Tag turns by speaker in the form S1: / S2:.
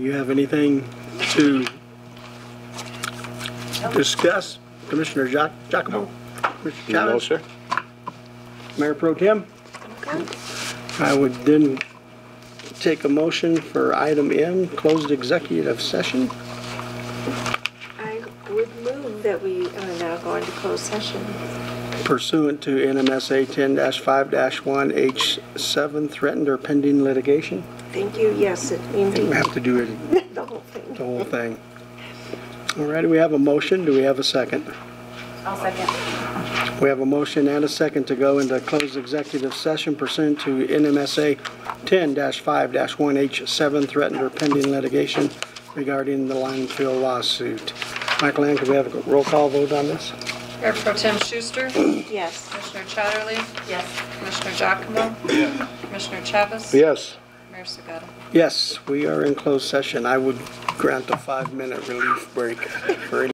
S1: You have anything to discuss, Commissioner Jac- Giacomo? Mr.
S2: No,
S1: Chavez?
S2: sir.
S1: Mayor Pro Tem? I would then take a motion for item M, closed executive session.
S3: I would move that we uh, now go into closed session.
S1: pursuant to NMSA 10-5-1H7, threatened or pending litigation.
S3: Thank you, yes, it-
S1: We
S3: indeed,
S1: have to do it,
S3: the whole thing.
S1: the whole thing. All right, we have a motion, do we have a second?
S4: I'll second.
S1: We have a motion and a second to go into closed executive session pursuant to NMSA 10-5-1H7, threatened or pending litigation regarding the Linefield lawsuit. Michael Ann, could we have a roll call vote on this?
S5: Mayor Pro Tem Schuster,
S3: Yes.
S5: Commissioner Chatterley,
S4: Yes.
S5: Commissioner Giacomo, Commissioner Chavez.
S2: Yes.
S5: Mayor Segura.
S1: Yes, we are in closed session. I would grant a five-minute relief break for any